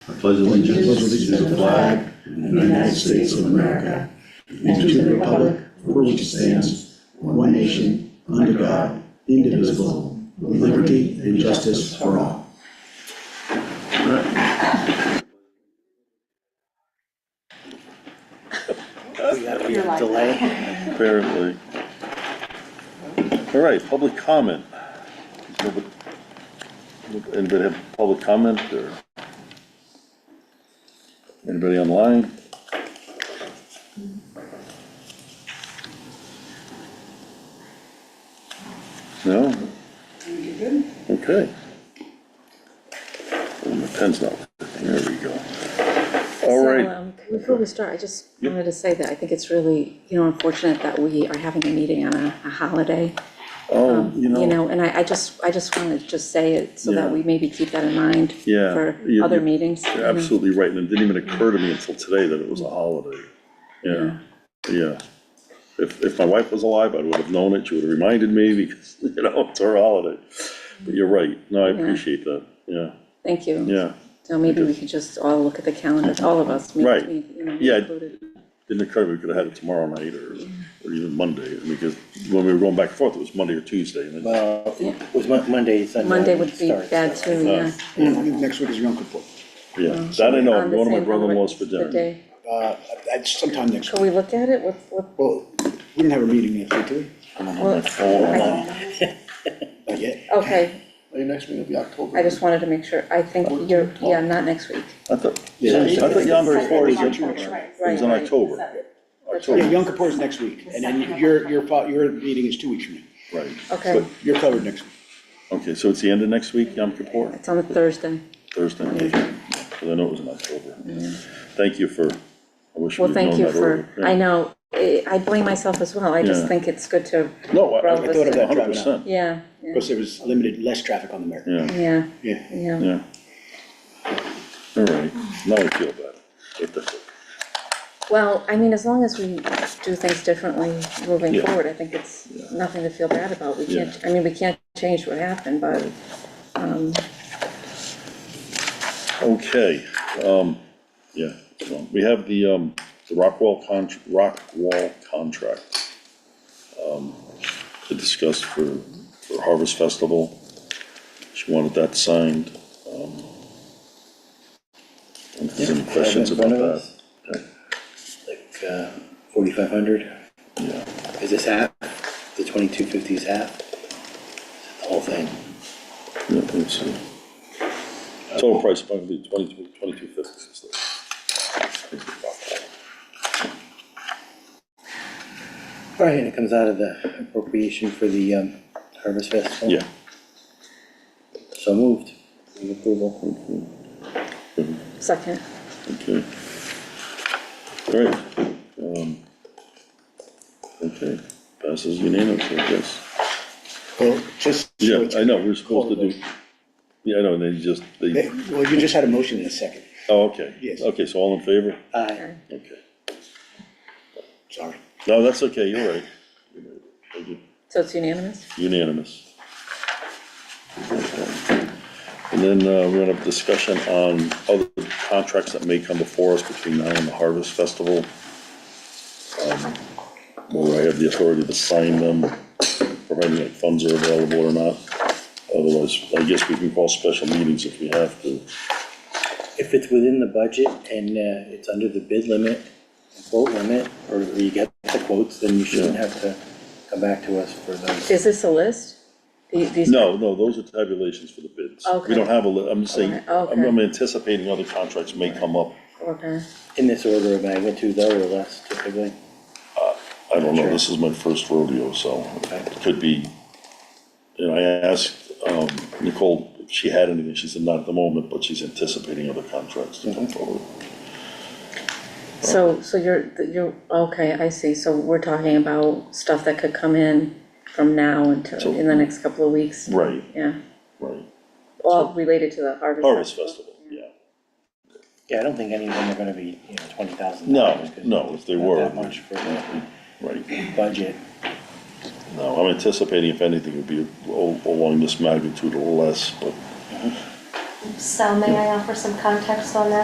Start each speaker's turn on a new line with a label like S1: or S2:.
S1: I pledge allegiance to the flag of the United States of America and to the republic for which it stands, one nation, under God, indivisible, with liberty and justice for all.
S2: We got a
S3: You're
S2: weird
S3: like-
S2: delay.
S4: Apparently. All right, public comment. Nobody- Anybody have public comment or? Anybody online? No? Okay. Oh, my pen's not working, there we go. All
S5: So,
S4: right,
S5: um, Before we start, I just wanted to say that I think it's really, you know, unfortunate that we are having a meeting on a, a holiday.
S4: oh, you
S5: Um, You
S4: know,
S5: know, and I, I just, I just wanted to just say it so that
S4: Yeah.
S5: we maybe keep that in mind
S4: Yeah,
S5: for
S4: you-
S5: other
S4: you-
S5: meetings. you
S4: you're
S5: know.
S4: absolutely right, and it didn't even occur to me until today that it was a holiday. Yeah, yeah. If, if my wife was alive, I would have known it, she would have reminded me, because, you know, it's her holiday. But you're right, no, I appreciate that, yeah,
S5: Thank you.
S4: yeah.
S5: So maybe we could just all look at the calendar, all of us. me-
S4: Right.
S5: me, you know,
S4: Yeah.
S5: included.
S4: Didn't occur, we could have had it tomorrow night or, or even Monday, because when we were going back and forth, it was Monday or Tuesday, and then,
S2: Well,
S5: Yeah.
S2: it was Mon- Monday, Sunday.
S5: Monday would be
S2: starts,
S5: bad
S2: so-
S4: Uh,
S5: too, yeah.
S1: Next week is your Uncle Paul.
S4: yeah, that I know,
S5: On
S4: I'm
S5: the
S4: going to my
S5: same- on the-
S4: brother-in-law's for
S5: The
S4: dinner.
S5: day.
S1: Uh, that's sometime next
S5: Can
S1: week.
S5: we look at it? What, what,
S1: Well, we don't have a meeting next week, do we?
S5: well, I-
S1: Not yet.
S5: okay,
S1: Your next meeting will be October.
S5: I just wanted to make sure. I think you're, yeah, not next week.
S4: I thought,
S1: Yeah,
S4: I
S1: it's-
S4: thought Yom Kippur is in,
S3: October, right.
S5: Right.
S4: is in October,
S1: Yeah,
S4: October,
S1: Yom Kippur is next week, and then your, your, fo- your meeting is two weeks from now.
S4: right.
S5: Okay.
S4: But
S1: You're covered next week.
S4: Okay, so it's the end of next week, Yom Kippur,
S5: It's on a Thursday.
S4: Thursday, okay, because I know it was in October. Thank you for, I wish
S5: Mm-hmm. Well,
S4: we'd known that
S5: thank you for,
S4: earlier.
S5: I
S4: Yeah.
S5: know, eh, I blame myself as well. I just
S4: Yeah.
S5: think it's good to,
S4: No, I- I
S5: Rob
S4: I thought
S5: was
S4: of that
S1: saying-
S4: hundred percent,
S5: yeah, yeah,
S1: Because there was limited, less traffic on the Merrick.
S4: yeah,
S5: yeah,
S1: Yeah.
S5: yeah.
S4: yeah. All right, now I feel better. What the-
S5: Well, I mean, as long as we do things differently moving
S4: Yeah.
S5: forward, I think it's nothing to feel bad about. We can't, I mean, we can't change what happened, but
S4: Okay, um, yeah, well, we have the, um, the Rockwell con, Rockwall contract. um, To discuss for, for Harvest Festival, she wanted that signed, um. and if there's any questions
S2: in front
S4: about
S2: of
S4: that?
S2: us. Like, uh, forty-five hundred?
S4: Yeah.
S2: Is this half? The twenty-two fifty is half? The whole thing?
S4: Yeah, let's see. Total price probably twenty-two, twenty-two fifty. is the- is the Rockwall.
S2: All right, and it comes out of the appropriation for the, um, Harvest Festival?
S4: Yeah,
S2: So moved, with approval.
S5: second,
S4: Okay. All right. um, Okay, passes unanimously, I guess.
S1: Well, just. so
S4: Yeah,
S1: it's-
S4: I know, we're supposed to do, yeah, I know, and they just,
S1: Hey,
S4: they,
S1: Well, you just had a motion in a second,
S4: oh, okay.
S1: Yes.
S4: Okay, so all in favor?
S5: Uh,
S2: Aye.
S4: Okay.
S1: sorry.
S4: No, that's okay, you're right. Thank you.
S5: so it's unanimous?
S4: Unanimous. And then uh, we're gonna have a discussion on other contracts that may come before us between now and the Harvest Festival. um, Where I have the authority to sign them, providing that funds are available or not. Otherwise, I guess we can call special meetings if we have to.
S2: If it's within the budget and, uh, it's under the bid limit, quote limit, or you get the quotes, then you shouldn't have to come back to us for those.
S5: Is this a list? The- These?
S4: No, no, those are tabulations for the bids. We
S5: Okay.
S4: don't have a, li- I'm just saying,
S5: Alright,
S4: I'm I'm anticipating other contracts may come up.
S5: Okay,
S2: In this order of magnitude, though, or less typically?
S4: I don't know, this is my first rodeo, so it could be, and I asked, um, Nicole if she had anything, she said not at the moment, but she's anticipating other contracts to
S2: Mm-hmm.
S4: come forward.
S5: so, so you're, you're, okay, I see, so we're talking about stuff that could come in from now
S4: So-
S5: until, in the next couple of weeks?
S4: Right,
S5: Yeah,
S4: right,
S5: all related to the Harvest
S4: Harvest
S5: Festival.
S4: Festival, yeah,
S2: Yeah, I don't think any of them are gonna be, you know, twenty thousand
S4: no,
S2: dollars.
S4: no, if they
S2: Not
S4: were,
S2: that much for the
S4: right,
S2: budget.
S4: no, I'm anticipating if anything, it would be al- along this magnitude or less, but
S3: So may I offer some context on that?